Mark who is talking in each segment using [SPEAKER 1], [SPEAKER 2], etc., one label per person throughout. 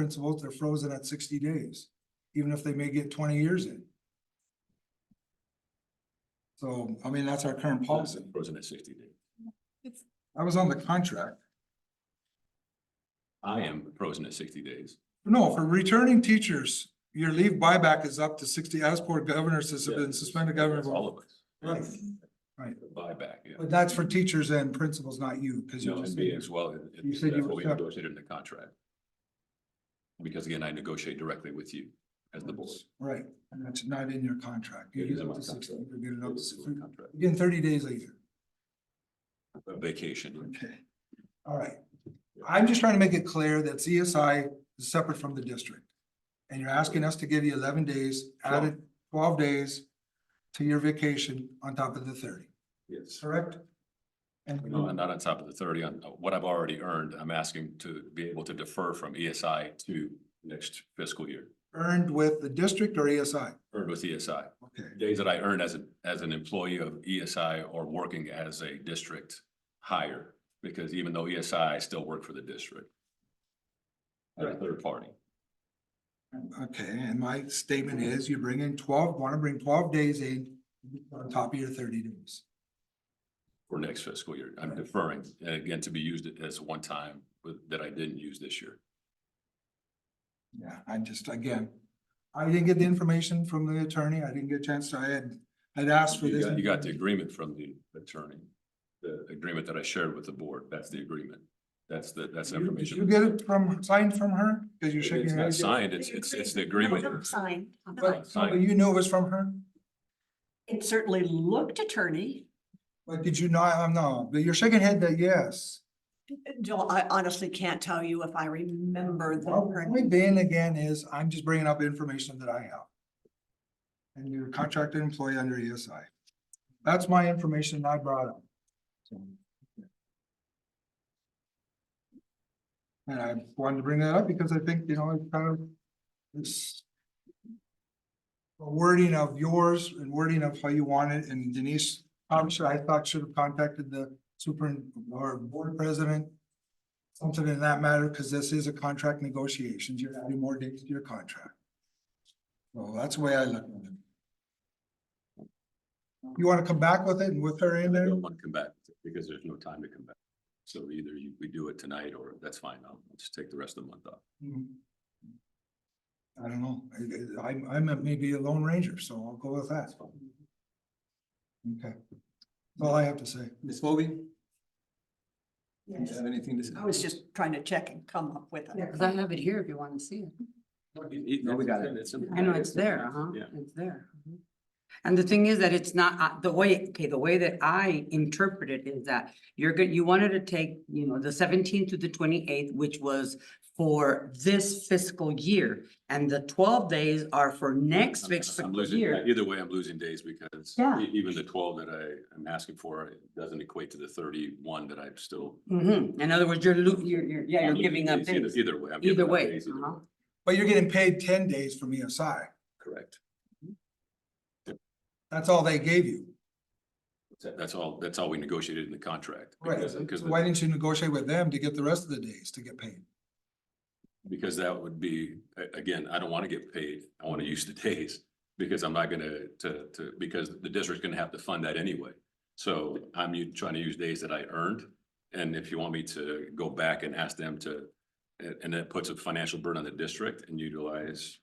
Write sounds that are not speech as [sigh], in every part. [SPEAKER 1] principals, they're frozen at sixty days, even if they may get twenty years in. So, I mean, that's our current policy.
[SPEAKER 2] Frozen at sixty days.
[SPEAKER 1] I was on the contract.
[SPEAKER 2] I am frozen at sixty days.
[SPEAKER 1] No, for returning teachers, your leave buyback is up to sixty, as per governor says, have been suspended
[SPEAKER 2] That's
[SPEAKER 1] governor.
[SPEAKER 2] All of us.
[SPEAKER 1] Right. Right.
[SPEAKER 2] Buyback, yeah.
[SPEAKER 1] But that's for teachers and principals, not you, because you
[SPEAKER 2] No,
[SPEAKER 1] just.
[SPEAKER 2] and me as well. it- it-
[SPEAKER 1] You said you
[SPEAKER 2] That's
[SPEAKER 1] were
[SPEAKER 2] what we
[SPEAKER 1] separate.
[SPEAKER 2] negotiated in the contract. Because again, I negotiate directly with you as the board.
[SPEAKER 1] Right, and that's not in your contract. You
[SPEAKER 2] It
[SPEAKER 1] get
[SPEAKER 2] is in
[SPEAKER 1] up
[SPEAKER 2] my
[SPEAKER 1] to sixty,
[SPEAKER 2] contract.
[SPEAKER 1] you get it up
[SPEAKER 2] It's in my
[SPEAKER 1] to,
[SPEAKER 2] contract.
[SPEAKER 1] again, thirty days later.
[SPEAKER 2] Vacation.
[SPEAKER 1] Okay, all right. I'm just trying to make it clear that CSI is separate from the district. And you're asking us to give you eleven days, added twelve days to your vacation on top of the thirty,
[SPEAKER 2] Yes.
[SPEAKER 1] correct? And
[SPEAKER 2] No, I'm not on top of the thirty. On what I've already earned, I'm asking to be able to defer from ESI to next fiscal year.
[SPEAKER 1] earned with the district or ESI?
[SPEAKER 2] Earned with ESI.
[SPEAKER 1] Okay,
[SPEAKER 2] Days that I earned as a, as an employee of E ESI or working as a district hire. Because even though ESI, I still work for the district. As a third party.
[SPEAKER 1] okay, and my statement is you bring in twelve, want to bring twelve days in on top of your thirty days.
[SPEAKER 2] for next fiscal year. I'm
[SPEAKER 1] Right.
[SPEAKER 2] deferring, and again, to be used as one time with, that I didn't use this year.
[SPEAKER 1] Yeah, I just, again, I didn't get the information from the attorney. I didn't get a chance. to. I had, I'd asked for
[SPEAKER 2] You
[SPEAKER 1] this.
[SPEAKER 2] got, you got the agreement from the attorney, the agreement that I shared with the board. That's the agreement. That's the, that's the
[SPEAKER 1] You- Did
[SPEAKER 2] information.
[SPEAKER 1] you get it from, signed from her? Cause you shook
[SPEAKER 2] It's
[SPEAKER 1] your head.
[SPEAKER 2] not signed, it's, it's, it's the agreement.
[SPEAKER 3] Sign.
[SPEAKER 1] But so
[SPEAKER 2] signed.
[SPEAKER 1] you knew it was from her?
[SPEAKER 3] It certainly looked attorney.
[SPEAKER 1] But did you not, I'm no, but you're shaking head that yes.
[SPEAKER 3] Joel, I honestly can't tell you if I remember the
[SPEAKER 1] Well,
[SPEAKER 3] attorney.
[SPEAKER 1] My ban again is I'm just bringing up information that I have. And you're a contracted employee under ESI. That's my information I brought up. So, yeah. And I wanted to bring that up because I think, you know, it kind of, it's a wording of yours and wording of how you want it and Denise, obviously I thought should have contacted the super or board president something in that matter, because this is a contract negotiations, you're adding more dates to your contract. Well, that's the way I look at it. You wanna come back with it and with her in
[SPEAKER 2] I
[SPEAKER 1] there?
[SPEAKER 2] don't want to come back because there's no time to come back. So either you, we do it tonight or that's fine. I'll just take the rest of the month off.
[SPEAKER 1] Mm. I don't know, I, am I'm maybe a lone ranger, so I'll go with that. Okay, that's all I have to say.
[SPEAKER 4] Ms. Moby, do you
[SPEAKER 3] Yes.
[SPEAKER 4] have anything to say?
[SPEAKER 3] I was just trying to check and come up with
[SPEAKER 5] Yeah,
[SPEAKER 3] it.
[SPEAKER 5] because I have it here if you want to see it.
[SPEAKER 4] No, we got it.
[SPEAKER 5] I know it's there, uh-huh. huh?
[SPEAKER 2] Yeah.
[SPEAKER 5] It's there. mhm. And the thing is that it's not, uh, the way, okay, the way that I interpret it is that you're good, you wanted to take, you know, the seventeenth to the twenty-eighth, which was for this fiscal year, and the twelve days are for next
[SPEAKER 2] I'm- I'm
[SPEAKER 5] fiscal
[SPEAKER 2] losing,
[SPEAKER 5] year.
[SPEAKER 2] either way, I'm losing days because
[SPEAKER 5] Yeah.
[SPEAKER 2] e- even the twelve that I am asking for it doesn't equate to the thirty-one that I'm still.
[SPEAKER 5] Mhm. In other words, you're lo- you're, you're, yeah,
[SPEAKER 2] I'm
[SPEAKER 5] you're
[SPEAKER 2] losing
[SPEAKER 5] giving up
[SPEAKER 2] days either-
[SPEAKER 5] days,
[SPEAKER 2] Either way. I'm giving
[SPEAKER 5] either
[SPEAKER 2] up
[SPEAKER 5] way.
[SPEAKER 2] days either
[SPEAKER 5] uh-huh.
[SPEAKER 1] But you're getting paid ten days from E ESI,
[SPEAKER 2] Correct.
[SPEAKER 1] that's all they gave you,
[SPEAKER 2] That's all, that's all we negotiated in the contract.
[SPEAKER 1] right?
[SPEAKER 2] Because,
[SPEAKER 1] So
[SPEAKER 2] because
[SPEAKER 1] Why
[SPEAKER 2] the-
[SPEAKER 1] didn't you negotiate with them to get the rest of the days to get paid?
[SPEAKER 2] because that would be, a- again, I don't want to get paid. I want to use the [laughs] days. Because I'm not gonna, to, to, because the district's gonna have to fund that anyway. So I'm u- trying to use days that I earned. And if you want me to go back and ask them to, and, and that puts a financial burden on the district and utilize.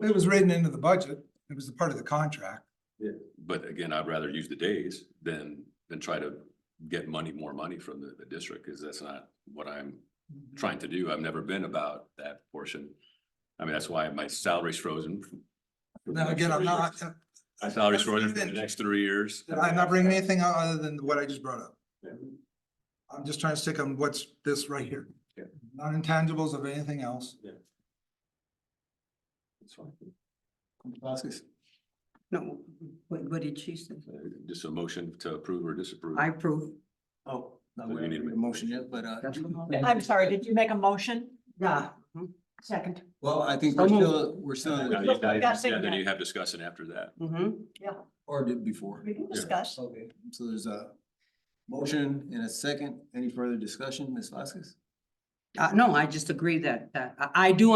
[SPEAKER 1] It was written into the budget, it was a part of the contract.
[SPEAKER 2] But again, I'd rather use the days than, than try to get money, more money from the, the district, because that's not what I'm
[SPEAKER 1] Mm-hmm.
[SPEAKER 2] trying to do. I've never been about that portion. I mean, that's why my salary's frozen. for the
[SPEAKER 1] Now,
[SPEAKER 2] next
[SPEAKER 1] again, I'm
[SPEAKER 2] three
[SPEAKER 1] not,
[SPEAKER 2] years. [laughs] My salary's
[SPEAKER 1] that's
[SPEAKER 2] frozen for the
[SPEAKER 1] even-
[SPEAKER 2] next three years.
[SPEAKER 1] I'm not bringing anything out other than what I just brought up.
[SPEAKER 2] Yeah.
[SPEAKER 1] I'm just trying to stick on what's this right here.
[SPEAKER 2] Yeah.
[SPEAKER 1] Not intangibles of anything else.
[SPEAKER 2] It's fine.
[SPEAKER 4] Vasquez?
[SPEAKER 5] No, what, what did she say?
[SPEAKER 2] Uh, Just a motion to approve or disapprove.
[SPEAKER 5] I approve.
[SPEAKER 4] Oh. No,
[SPEAKER 2] So
[SPEAKER 4] we
[SPEAKER 2] you need
[SPEAKER 4] haven't
[SPEAKER 2] to
[SPEAKER 4] made
[SPEAKER 2] make a
[SPEAKER 4] a motion yet, but, uh,
[SPEAKER 5] That's what
[SPEAKER 3] I'm sorry, did you make a motion?
[SPEAKER 5] Yeah. mhm.
[SPEAKER 3] Second.
[SPEAKER 4] well, I think
[SPEAKER 5] So
[SPEAKER 4] we're
[SPEAKER 5] moved.
[SPEAKER 4] still, we're still,
[SPEAKER 2] Now
[SPEAKER 4] in
[SPEAKER 2] you- now
[SPEAKER 4] the-
[SPEAKER 2] you-
[SPEAKER 3] Discussing
[SPEAKER 2] yeah, Then
[SPEAKER 3] that.
[SPEAKER 2] you have discussion after that.
[SPEAKER 5] Mhm.
[SPEAKER 4] or did before.
[SPEAKER 3] We can
[SPEAKER 2] Yeah.
[SPEAKER 3] discuss.
[SPEAKER 4] Okay, so there's a motion and a second. Any further discussion, Ms. Vasquez?
[SPEAKER 5] Uh, no, I just agree that, that, I, I do